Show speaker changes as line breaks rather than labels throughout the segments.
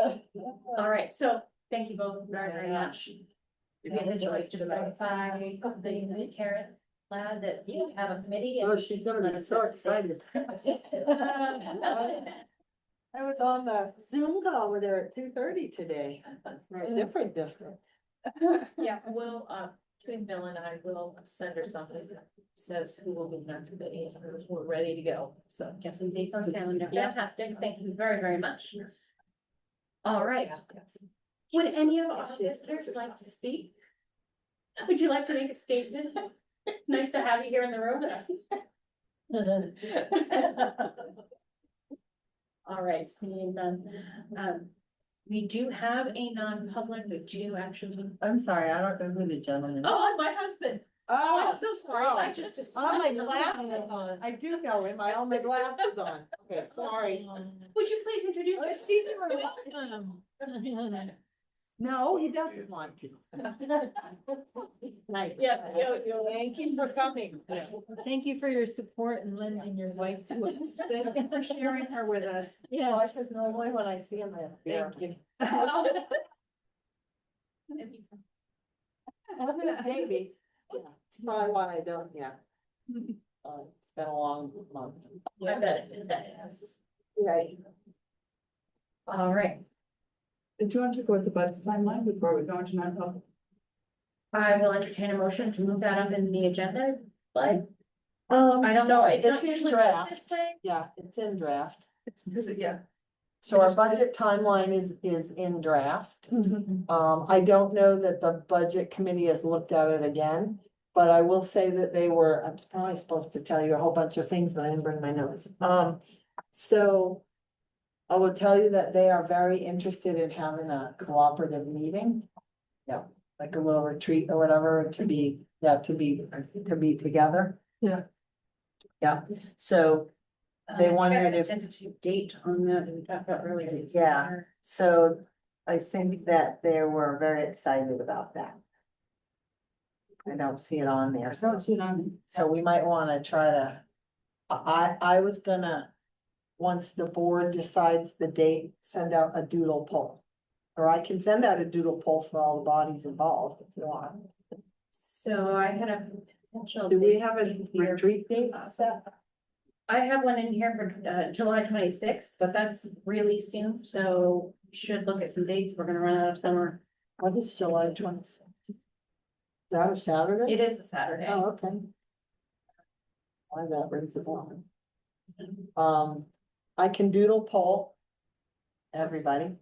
All right, so thank you both very, very much. We made the choice to notify the Karen Lad that you have a committee. and
Oh, she's gonna be so excited. I was on the Zoom call with her at two thirty today, for a different district.
Yeah, well, uh, between Bill and I will send her something that says who will be on the committee, and we're ready to go, so. Guess we date on calendar. Fantastic, thank you very, very much. All right, would any of our visitors like to speak? Would you like to make a statement? Nice to have you here in the room. All right, seeing none, um, we do have a non-public, but do you actually?
I'm sorry, I don't know who the gentleman.
Oh, and my husband. I'm
Oh,
so sorry. I just.
all oh, my
assumed-
glasses on. I do know him. I all my glasses on. Okay, sorry.
Would you please introduce
Oh,
yourself?
excuse me, Maria. No, he doesn't want to. Nice.
Yeah, you, you.
Thank you for coming.
Thank you for your support and lending your wife to us.
Thank you for sharing her with us. Oh,
Yes,
This is normally when I see him. I have beer.
thank you.
Maybe. It's probably why I don't, yeah. Uh, It's been a long month.
I bet it does.
Right.
All right,
Did you want to go with the budget timeline before we go into non-public?
I will entertain a motion to move that up in the agenda, but
Um,
I don't know, it's not
It's in
usually
draft.
this way.
Yeah, it's in draft.
It's, because it- yeah.
So our budget timeline is, is in draft.
Mm-hmm.
Um, I don't know that the budget committee has looked at it again. But I will say that they were, I'm probably supposed to tell you a whole bunch of things, but I didn't bring my notes. Um, so. I will tell you that they are very interested in having a cooperative meeting. Yeah, like a little retreat or whatever to be, yeah, to be, to be together.
Yeah.
Yeah, so They
Uh,
wondered
I had a
if-
tentative Date on that, that we talked about earlier.
Yeah. So I think that they were very excited about that. I don't see it on there, so,
That's it on.
So we might wanna try to, I, I I was gonna, once the board decides the date, send out a doodle poll. Or I can send out a doodle poll for all the bodies involved if you want.
So I had a potential.
Do we
date
have a
in here.
retreat date set?
I have one in here for uh July twenty-sixth, but that's really soon, so we should look at some dates. We're gonna run out of summer.
What is July twenty sixth? Is that a Saturday?
It is a Saturday.
Oh, okay. Why that rings a bell. Um, I can doodle poll. Everybody.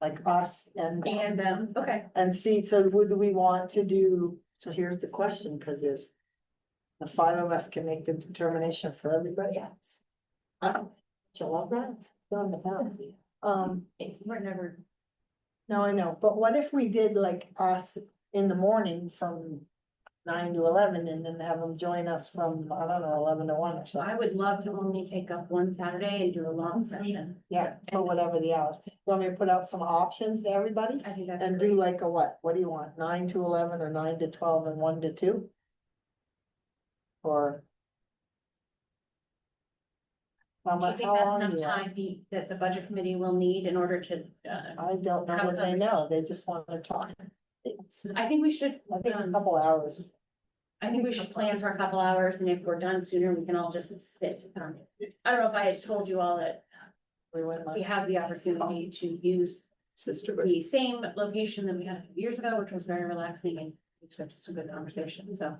Like us and. them.
And, um, okay,
And see, so would we want to do, so here's the question, because there's. The five of us can make the determination for everybody else. I don't, do you love that? Done with that. Um,
it's, we're never,
no, I know, but what if we did like us in the morning from. Nine to eleven and then have them join us from, I don't know, eleven to one or
so I
something,
would love to only take up one Saturday and do a long session.
yeah, so whatever the hours. You Want me to put out some options to everybody?
I think that's
And do
great.
like a what? What do you want? Nine to eleven or nine to twelve and one to two? Or? How
Do you
much,
think
how
that's
long do
enough
you want?
time the- that the budget committee will need in order to, uh,
I don't know
Have
what they
conversation?
know. They just wanna talk.
I think we should,
I think a
um,
couple hours.
I think we should plan for a couple hours and if we're done sooner, we can all just sit. um, I don't know if I had told you all that
We went on.
we have the opportunity to use
Sister.
the same location that we had years ago, which was very relaxing and we just had some good conversation, so.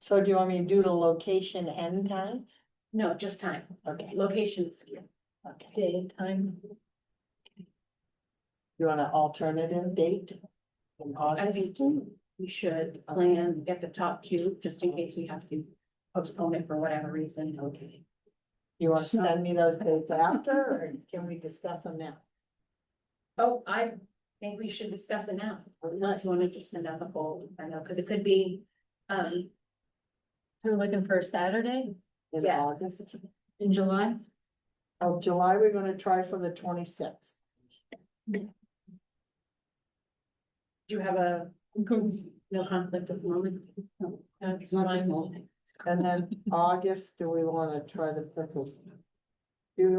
So do you want me to do the location and time?
No, just time,
Okay,
locations.
okay.
day and time.
You want an alternative date? In
I think
August?
we should plan, get the top two, just in case we have to postpone it for whatever reason.
Okay. You wanna
Sure.
send me those dates after or can we discuss them now?
Oh, I think we should discuss it now, unless you want to just send out the poll, I know, because it could be, um,
We're looking for a Saturday
In
Yes.
August?
in July.
Of July, we're gonna try for the twenty-sixth.
do you have a no conflict of moment? No, it's not just moment.
And then August, do we wanna try to pick a? Do we